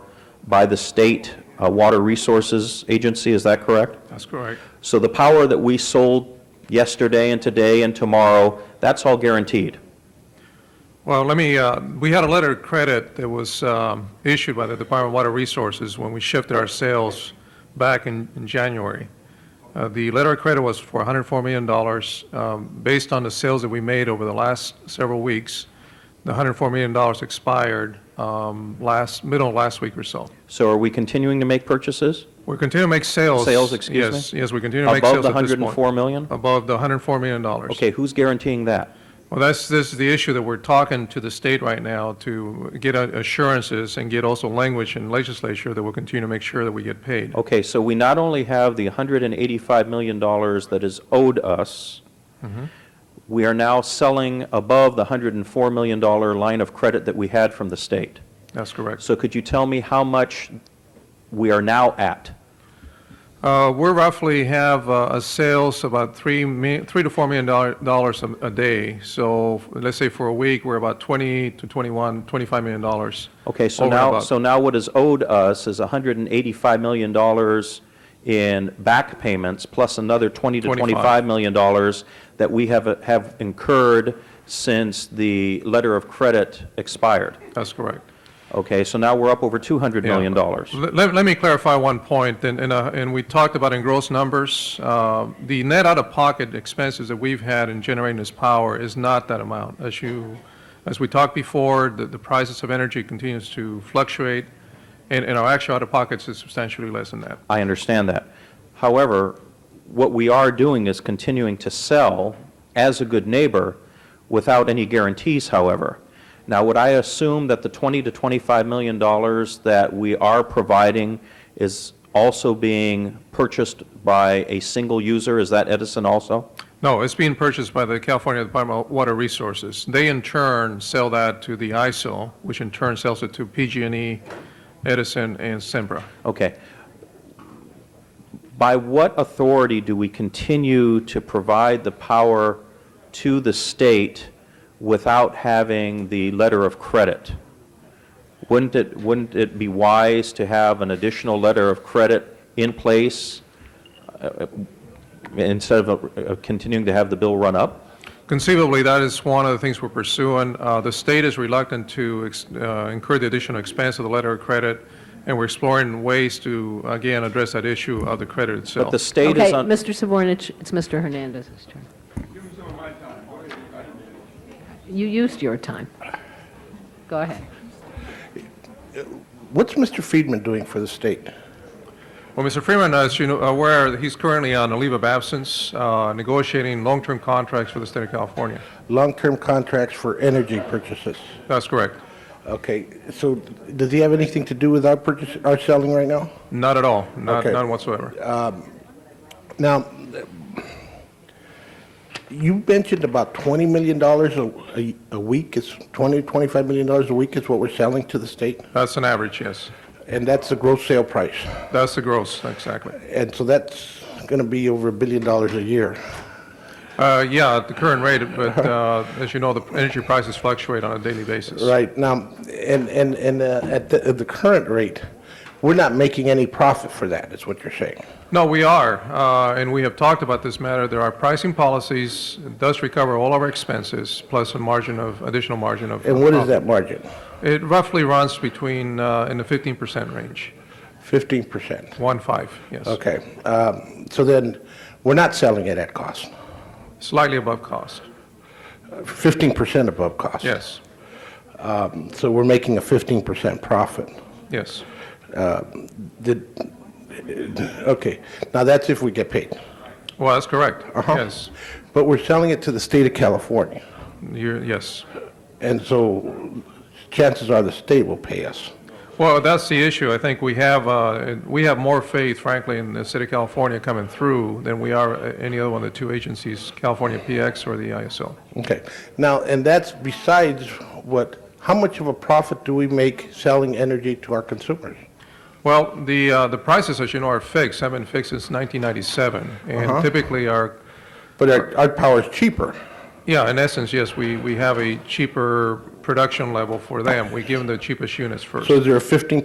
by the State uh, Water Resources Agency, is that correct? That's correct. So the power that we sold yesterday and today and tomorrow, that's all guaranteed? Well, let me, uh, we had a letter of credit that was um, issued by the Department of Water Resources when we shifted our sales back in in January. Uh, The letter of credit was for $104 million. Um, Based on the sales that we made over the last several weeks, the $104 million expired um, last, middle of last week or so. So are we continuing to make purchases? We're continuing to make sales. Sales, excuse me? Yes, yes, we continue to make sales at Above this the point. 104 million? Above the $104 million. Okay, who's guaranteeing that? Well, that's, this is the issue that we're talking to the state right now to get a- assurances and get also language in legislature that will continue to make sure that we get paid. Okay, so we not only have the $185 million that is owed us, Mm-hmm. we are now selling above the $104 million line of credit that we had from the state. That's correct. So could you tell me how much we are now at? Uh, we roughly have uh, a sales about three mi- three to four million dollar- dollars a a day. So f- let's say for a week, we're about 20 to 21, 25 million dollars. Okay, so Over and now, above. so now what is owed us is $185 million in back payments, plus another 20 to $25 25 million that we have, have incurred since the letter of credit expired. That's correct. Okay, so now we're up over $200 million. Let, let- let me clarify one point, and, and, uh, and we talked about in gross numbers. uh, The net out-of-pocket expenses that we've had in generating this power is not that amount. As you, as we talked before, the, the prices of energy continues to fluctuate, and, and our actual out-of-pockets is substantially less than that. I understand that. However, what we are doing is continuing to sell as a good neighbor without any guarantees, however. Now, would I assume that the 20 to 25 million dollars that we are providing is also being purchased by a single user? Is that Edison also? No, it's being purchased by the California Department of Water Resources. They in turn sell that to the ISO, which in turn sells it to PG&E, E, Edison, and Sempra. Okay. By what authority do we continue to provide the power to the state without having the letter of credit? Wouldn't it, wouldn't it be wise to have an additional letter of credit in place uh, instead of uh, continuing to have the bill run up? Conceivably, that is one of the things we're pursuing. Uh, The state is reluctant to ex- uh, incur the additional expense of the letter of credit, and we're exploring ways to, again, address that issue of the credit itself. But the state Okay, is on... Mr. Savornich, it's Mr. Hernandez's turn. You used your time. Go ahead. What's Mr. Friedman doing for the state? Well, Mr. Freeman, as you know, aware, he's currently on a leave of absence, uh, negotiating long-term contracts for the state of California. Long-term contracts for energy purchases. That's correct. Okay, so does he have anything to do with our purchase, our selling right now? Not at all, not Okay. Uh, none whatsoever. Now, you mentioned about $20 million a- a, a week is, 20, $25 million a week is what we're selling to the state? That's an average, yes. And that's the gross sale price. That's the gross, exactly. And so that's going to be over a billion dollars a year. Uh, Yeah, at the current rate, but uh, as you know, the energy prices fluctuate on a daily basis. Right, now, and, and, and uh, at the, at the current rate, we're not making any profit for that, is what you're saying? No, we are, uh, and we have talked about this matter. There are pricing policies, it does recover all our expenses, plus a margin of, additional margin of. And what is that margin? It roughly runs between, uh, in the 15% range, Fifteen percent. one five, yes. Okay, um, so then, we're not selling it at cost, Slightly above cost, fifteen percent above cost. yes, So we're making a fifteen percent profit. yes. Did, okay, now that's if we get paid. Well, that's correct, Uh-huh. yes, But we're selling it to the state of California, you're, yes. and so chances are the state will pay us. Well, that's the issue. I think we have, uh, we have more faith, frankly, in the city of California coming through than we are uh, any other one of the two agencies, California PX or the ISO. Okay, now, and that's besides what, how much of a profit do we make selling energy to our consumers? Well, the, uh, the prices, as you know, are fixed, have been fixed since 1997, and typically are, But our, our power's cheaper. yeah, in essence, yes, we, we have a cheaper production level for them. We give them the cheapest units first. So is there a fifteen